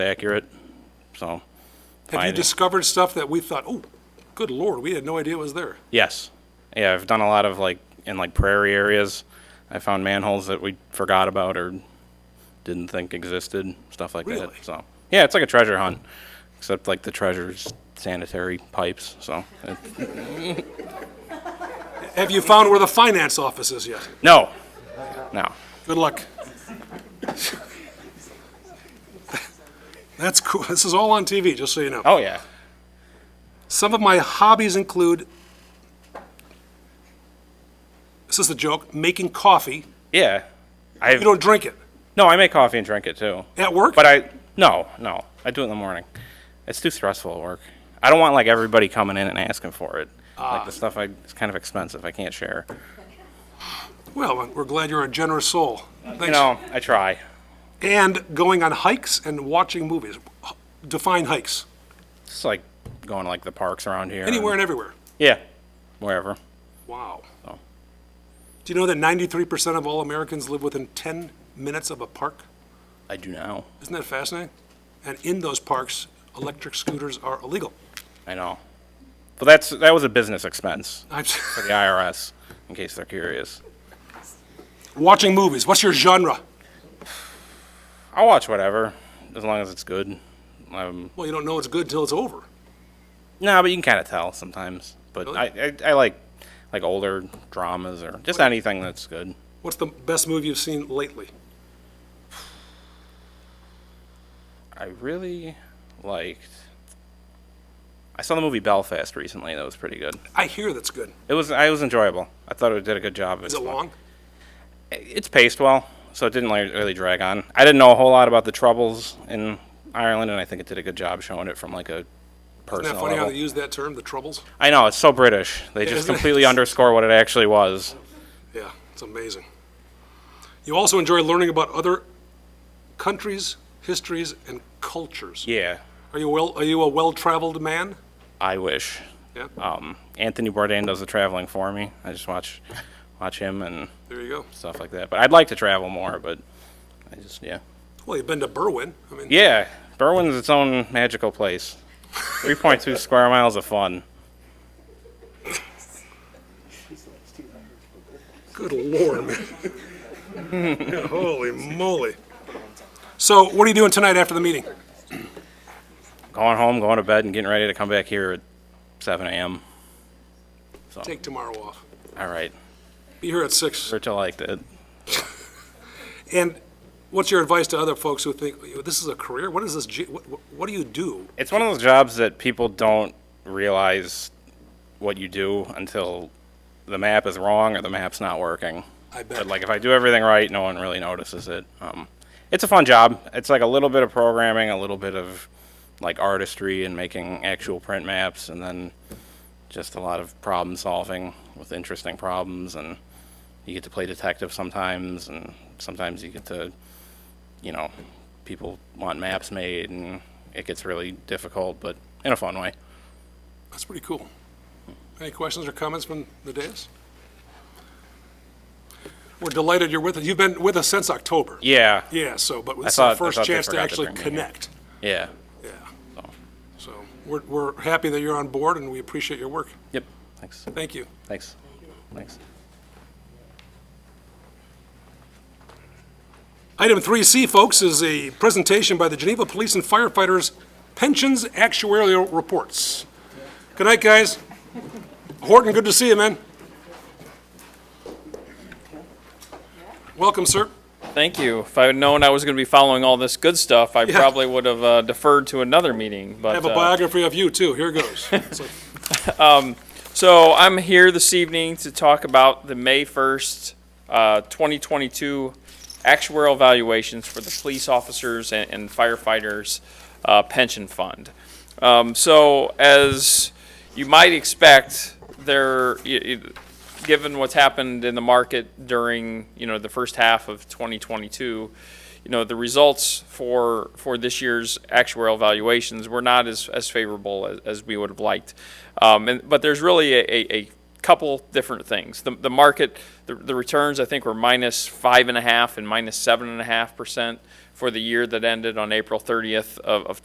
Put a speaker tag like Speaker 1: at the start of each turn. Speaker 1: accurate, so,
Speaker 2: Have you
Speaker 1: finding-
Speaker 2: discovered stuff that we thought, oh, good lord, we had no idea was there?
Speaker 1: yes. Yeah, I've done a lot of like, in like prairie areas, I found manholes that we forgot about or didn't think existed, stuff like that,
Speaker 2: Really?
Speaker 1: so. Yeah, it's like a treasure hunt, except like the treasure's sanitary pipes, so. it-
Speaker 2: Have you found where the finance office is yet?
Speaker 1: No, no.
Speaker 2: Good luck. That's cool. This is all on TV, just so you know.
Speaker 1: Oh, yeah.
Speaker 2: Some of my hobbies include this is the joke making coffee.
Speaker 1: Yeah.
Speaker 2: You
Speaker 1: I,
Speaker 2: don't drink it.
Speaker 1: no, I make coffee and drink it too.
Speaker 2: At work?
Speaker 1: But I no, no. I do it in the morning. It's too stressful at work. I don't want like everybody coming in and asking for it. Like the stuff I it's kind of expensive. I can't share.
Speaker 2: Well, we're glad you're a generous soul. Thanks.
Speaker 1: You know, I try.
Speaker 2: And going on hikes and watching movies. Define hikes.
Speaker 1: It's like going to like the parks around here.
Speaker 2: Anywhere
Speaker 1: and-
Speaker 2: and everywhere.
Speaker 1: yeah. Wherever.
Speaker 2: Wow.
Speaker 1: Oh.
Speaker 2: Do you know that 93% of all Americans live within 10 minutes of a park?
Speaker 1: I do now.
Speaker 2: Isn't that fascinating? And in those parks, electric scooters are illegal.
Speaker 1: I know. But that's that was a business expense
Speaker 2: I'm
Speaker 1: for the IRS, in case they're curious.
Speaker 2: watching movies. What's your genre?
Speaker 1: I'll watch whatever, as long as it's good. Um,
Speaker 2: Well, you don't know it's good till it's over.
Speaker 1: No, but you can kind of tell sometimes. But
Speaker 2: Really?
Speaker 1: I, I, I like like older dramas or just anything that's good.
Speaker 2: What's the best movie you've seen lately?
Speaker 1: I really liked. I saw the movie Belfast recently. That was pretty good.
Speaker 2: I hear that's good.
Speaker 1: It was I was enjoyable. I thought it did a good job.
Speaker 2: Is it long?
Speaker 1: It's paced well, so it didn't like, really drag on. I didn't know a whole lot about the troubles in Ireland, and I think it did a good job showing it from like a
Speaker 2: Isn't
Speaker 1: personal
Speaker 2: that funny how
Speaker 1: level.
Speaker 2: they use that term, the troubles?
Speaker 1: I know it's so British. They just
Speaker 2: isn't it?
Speaker 1: completely underscore what it actually was.
Speaker 2: Yeah, it's amazing. You also enjoy learning about other countries, histories, and cultures.
Speaker 1: Yeah,
Speaker 2: Are you well? Are you a well-traveled man?
Speaker 1: I wish.
Speaker 2: Yeah.
Speaker 1: um, Anthony Bourdain does the traveling for me. I just watch watch him and
Speaker 2: There you go.
Speaker 1: stuff like that. But I'd like to travel more, but I just yeah.
Speaker 2: Well, you've been to Berwyn. I mean,
Speaker 1: Yeah, Berwyn's its own magical place. 3.2 square miles of fun.
Speaker 2: good lord, man. Holy moly. So, what are you doing tonight after the meeting?
Speaker 1: Going home, going to bed, and getting ready to come back here at 7 a.m.
Speaker 2: Take tomorrow off.
Speaker 1: All right,
Speaker 2: Be here at six.
Speaker 1: Churchill liked it.
Speaker 2: And what's your advice to other folks who think this is a career? What is this? j- What, what- what do you do?
Speaker 1: It's one of those jobs that people don't realize what you do until the map is wrong or the map's not working.
Speaker 2: I bet.
Speaker 1: But like if I do everything right, no one really notices it. Um, it's a fun job. It's like a little bit of programming, a little bit of like artistry and making actual print maps, and then just a lot of problem solving with interesting problems. And you get to play detective sometimes, and sometimes you get to, you know, people want maps made, and it gets really difficult, but in a fun way.
Speaker 2: That's pretty cool. Any questions or comments from the dais? We're delighted you're with us. You've been with us since October.
Speaker 1: Yeah.
Speaker 2: Yeah, so, but this is
Speaker 1: thought-
Speaker 2: our
Speaker 1: I
Speaker 2: first
Speaker 1: thought they
Speaker 2: chance to
Speaker 1: forgot to
Speaker 2: actually
Speaker 1: bring me here.
Speaker 2: connect.
Speaker 1: Yeah.
Speaker 2: Yeah.
Speaker 1: So,
Speaker 2: So we're, we're happy that you're on board and we appreciate your work.
Speaker 1: yep. Thanks.
Speaker 2: Thank you.
Speaker 1: Thanks. Thanks.
Speaker 2: Item 3C, folks, is a presentation by the Geneva Police and Firefighters Pensions Actuarial Reports. Good night, guys. Horton, good to see you, man. Welcome, sir.
Speaker 3: Thank you. If I had known I was going to be following all this good stuff, I probably would have uh, deferred to another meeting. But
Speaker 2: I have a
Speaker 3: uh,
Speaker 2: biography of you, too. Here goes. It's like-
Speaker 3: so I'm here this evening to talk about the May 1st, uh, 2022 actuarial valuations for the police officers and, and firefighters uh, pension fund. Um, so as you might expect, there, y- y- given what's happened in the market during you know the first half of 2022, you know the results for for this year's actuarial valuations were not as as favorable as, as we would have liked. Um, and but there's really a, a, a couple different things. The, the market, the, the returns, I think, were minus five and a half and minus seven and a half percent for the year that ended on April 30th of, of